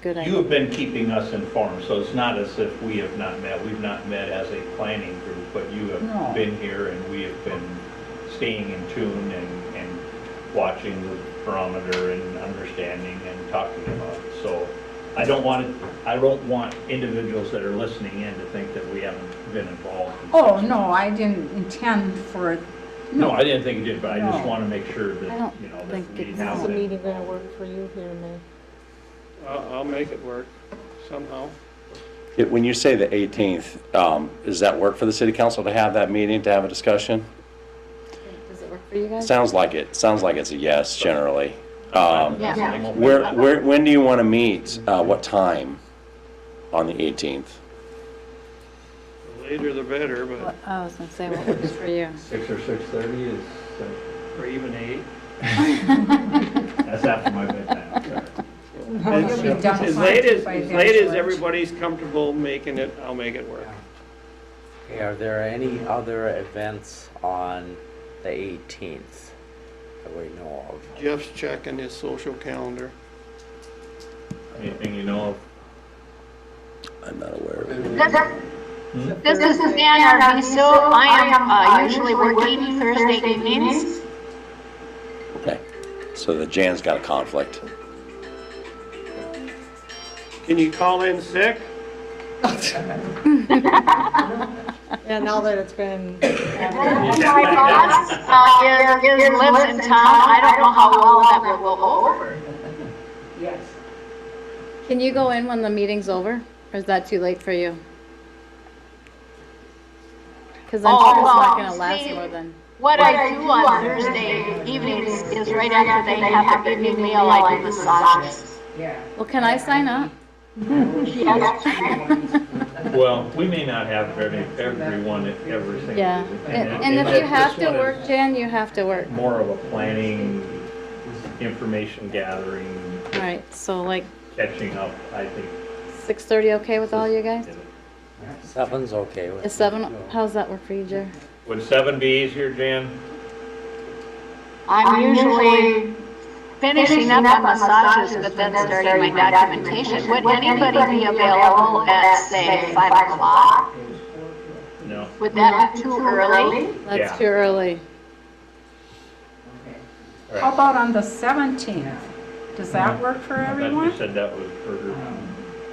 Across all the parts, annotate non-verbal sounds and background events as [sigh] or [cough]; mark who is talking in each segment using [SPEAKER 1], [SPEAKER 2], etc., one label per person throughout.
[SPEAKER 1] Good
[SPEAKER 2] You
[SPEAKER 1] idea.
[SPEAKER 2] have been keeping us informed, so it's not as if we have not met. We've not met as a planning group, but you
[SPEAKER 3] No.
[SPEAKER 2] have been here and we have been staying in tune and, and watching the barometer and understanding and talking about it. So I don't want, it- I don't want individuals that are listening in to think that we haven't been involved. in
[SPEAKER 3] Oh,
[SPEAKER 2] such-
[SPEAKER 3] no, I didn't intend for,
[SPEAKER 2] No, I didn't think you did, but I just
[SPEAKER 3] No.
[SPEAKER 2] want to make sure
[SPEAKER 1] I
[SPEAKER 2] that,
[SPEAKER 1] don't
[SPEAKER 2] you know,
[SPEAKER 1] think
[SPEAKER 2] that we
[SPEAKER 1] it's-
[SPEAKER 2] now.
[SPEAKER 4] How's
[SPEAKER 1] How's
[SPEAKER 4] the
[SPEAKER 1] the
[SPEAKER 2] that-
[SPEAKER 4] meeting gonna work for you here, May?
[SPEAKER 5] I'll, I'll make it work somehow.
[SPEAKER 6] It- When you say the 18th, um, does that work for the city council to have that meeting, to have a discussion?
[SPEAKER 1] Does it work for you guys?
[SPEAKER 6] Sounds like it, sounds like it's a yes generally. Um,
[SPEAKER 1] Yeah.
[SPEAKER 2] I'm open.
[SPEAKER 6] Where, where, when do you want to meet? Uh, What time on the 18th?
[SPEAKER 5] The Later the better,
[SPEAKER 1] What-
[SPEAKER 5] but,
[SPEAKER 1] I was gonna say, what works for you?
[SPEAKER 2] Six or six-thirty is, uh,
[SPEAKER 5] or even
[SPEAKER 1] [laughs]
[SPEAKER 5] eight.
[SPEAKER 2] That's after my bedtime.
[SPEAKER 3] you'll be done
[SPEAKER 5] As late as, as late as everybody's comfortable making it, I'll make it work.
[SPEAKER 7] Okay, are there any other events on the 18th that we know of?
[SPEAKER 5] Jeff's checking his social calendar.
[SPEAKER 2] Anything you know of?
[SPEAKER 6] I'm not aware of it.
[SPEAKER 8] This is Ann Arviso. I am uh, usually working Thursday evenings.
[SPEAKER 6] Okay, so the Jan's got a conflict.
[SPEAKER 5] Can you call in sick?
[SPEAKER 4] Yeah, now that it's been,
[SPEAKER 8] My boss uh, is- is- lives in town. I don't know how well that will go over.
[SPEAKER 1] Can you go in when the meeting's over? Or is that too late for you? Because
[SPEAKER 4] Oh,
[SPEAKER 1] I'm sure it's not gonna last more than,
[SPEAKER 8] What I do on Thursday evenings is right after they have their evening meal, I do massages.
[SPEAKER 1] well, can I sign up?
[SPEAKER 2] Well, we may not have every, everyone, at every single.
[SPEAKER 1] Yeah. And and if you have to work, Jan, you have to work.
[SPEAKER 2] More of a planning, information gathering,
[SPEAKER 1] All right, so like
[SPEAKER 2] catching up, I think.
[SPEAKER 1] 6:30, okay with all you guys?
[SPEAKER 7] Seven's okay with
[SPEAKER 1] Is 7, how's that work for you, Jer?
[SPEAKER 2] Would seven be easier, Jan?
[SPEAKER 8] I'm usually finishing up on massages, but then starting my documentation. Would anybody be available at, say, 5 o'clock?
[SPEAKER 2] No.
[SPEAKER 8] Would that be too early?
[SPEAKER 1] That's
[SPEAKER 2] Yeah.
[SPEAKER 1] too early.
[SPEAKER 3] How about on the 17th? Does that work for
[SPEAKER 2] I thought
[SPEAKER 3] everyone?
[SPEAKER 2] You said that was burger.
[SPEAKER 5] Um,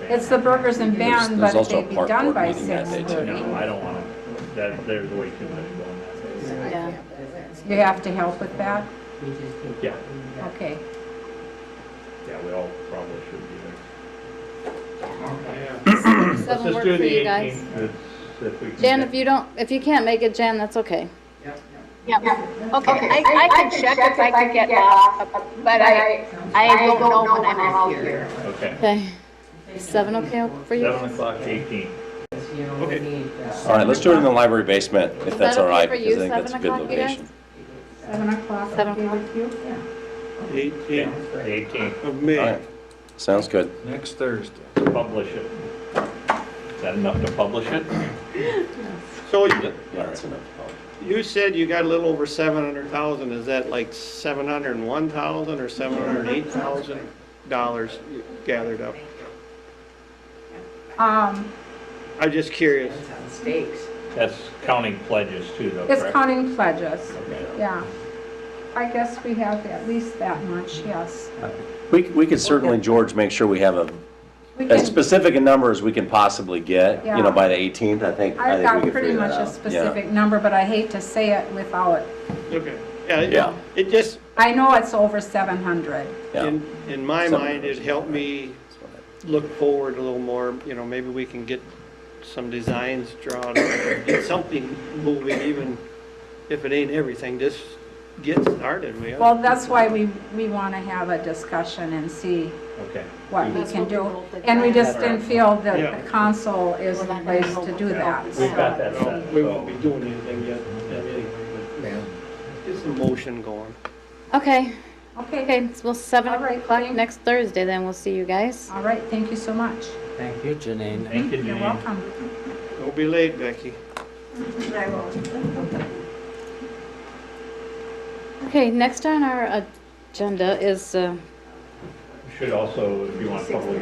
[SPEAKER 3] It's the Burgers and
[SPEAKER 6] There's-
[SPEAKER 3] Band,
[SPEAKER 6] there's
[SPEAKER 3] but
[SPEAKER 6] also a
[SPEAKER 3] they'd be
[SPEAKER 6] park
[SPEAKER 3] done
[SPEAKER 6] board
[SPEAKER 3] by
[SPEAKER 6] meeting that day, too.
[SPEAKER 3] 6:30.
[SPEAKER 2] No, I don't want to, that, there's way too much going on.
[SPEAKER 1] Yeah.
[SPEAKER 3] You have to help with that?
[SPEAKER 2] Yeah,
[SPEAKER 3] Okay.
[SPEAKER 2] yeah, we all probably should be there. [clears throat] Let's
[SPEAKER 1] 7
[SPEAKER 2] just
[SPEAKER 1] work
[SPEAKER 2] do
[SPEAKER 1] for
[SPEAKER 2] the
[SPEAKER 1] you guys?
[SPEAKER 2] 18th. It's- if we can
[SPEAKER 1] Jan,
[SPEAKER 2] get-
[SPEAKER 1] if you don't, if you can't make it, Jan, that's okay.
[SPEAKER 8] Yep, okay, I, I can check if I can get off, but I, I don't know when I'm out here.
[SPEAKER 2] Okay.
[SPEAKER 1] Okay. Seven okay for you?
[SPEAKER 2] Seven o'clock, 18.
[SPEAKER 6] All right, let's do it in the library basement, if that's all right,
[SPEAKER 1] Is that okay for
[SPEAKER 6] because
[SPEAKER 1] you,
[SPEAKER 6] I think that's a
[SPEAKER 1] seven
[SPEAKER 6] good
[SPEAKER 1] o'clock, you guys?
[SPEAKER 6] location.
[SPEAKER 1] Seven o'clock.
[SPEAKER 5] Eighteenth
[SPEAKER 2] Eighteenth.
[SPEAKER 5] of
[SPEAKER 6] All
[SPEAKER 5] May.
[SPEAKER 6] right, sounds good.
[SPEAKER 9] Next Thursday.
[SPEAKER 2] Publish it. Is that enough to publish it?
[SPEAKER 5] So
[SPEAKER 6] Yeah, that's enough.
[SPEAKER 5] you said you got a little over seven hundred thousand. Is that like seven hundred and one thousand or seven hundred and eight thousand dollars gathered up?
[SPEAKER 3] Um,
[SPEAKER 5] I'm just curious.
[SPEAKER 2] That's counting pledges too, though,
[SPEAKER 3] It's
[SPEAKER 2] correct?
[SPEAKER 3] counting pledges,
[SPEAKER 2] Okay.
[SPEAKER 3] yeah. I guess we have at least that much, yes.
[SPEAKER 6] We, we could certainly, George, make sure we have a,
[SPEAKER 3] We
[SPEAKER 6] as
[SPEAKER 3] can,
[SPEAKER 6] specific a number as we can possibly get, you
[SPEAKER 3] Yeah.
[SPEAKER 6] know, by the 18th, I think, I
[SPEAKER 3] I've
[SPEAKER 6] think we
[SPEAKER 3] got
[SPEAKER 6] could
[SPEAKER 3] pretty
[SPEAKER 6] figure
[SPEAKER 3] much
[SPEAKER 6] that out.
[SPEAKER 3] a
[SPEAKER 6] Yeah.
[SPEAKER 3] specific number, but I hate to say it without,
[SPEAKER 5] Okay. Yeah,
[SPEAKER 6] Yeah.
[SPEAKER 5] it- it just,
[SPEAKER 3] I know it's over 700.
[SPEAKER 6] Yeah.
[SPEAKER 5] In, in my
[SPEAKER 6] Seven
[SPEAKER 5] mind,
[SPEAKER 6] hours.
[SPEAKER 5] it helped me look forward a little more, you know, maybe we can get some designs drawn, or get something moving, even if it ain't everything, just get started, we.
[SPEAKER 3] Well, that's why we, we want to have a discussion and see
[SPEAKER 2] Okay.
[SPEAKER 3] what we
[SPEAKER 4] That's
[SPEAKER 3] can
[SPEAKER 4] what we
[SPEAKER 3] do.
[SPEAKER 4] rolled the
[SPEAKER 3] And we just
[SPEAKER 2] dice.
[SPEAKER 3] didn't feel
[SPEAKER 5] Yeah.
[SPEAKER 3] that the council is the place to do that.
[SPEAKER 2] We've got that
[SPEAKER 5] You know,
[SPEAKER 2] set.
[SPEAKER 5] We won't be doing anything yet, anyway, but get some motion going.
[SPEAKER 1] Okay,
[SPEAKER 3] Okay,
[SPEAKER 1] okay, well, seven
[SPEAKER 3] All right,
[SPEAKER 1] o'clock
[SPEAKER 3] thank-
[SPEAKER 1] next Thursday, then we'll see you guys.
[SPEAKER 3] all right, thank you so much.
[SPEAKER 7] Thank you, Janine.
[SPEAKER 2] Thank you,
[SPEAKER 3] You're
[SPEAKER 2] Janine.
[SPEAKER 3] welcome.
[SPEAKER 5] Don't be late, Becky.
[SPEAKER 1] Okay, next on our agenda is, uh,
[SPEAKER 2] You Should also, if you want public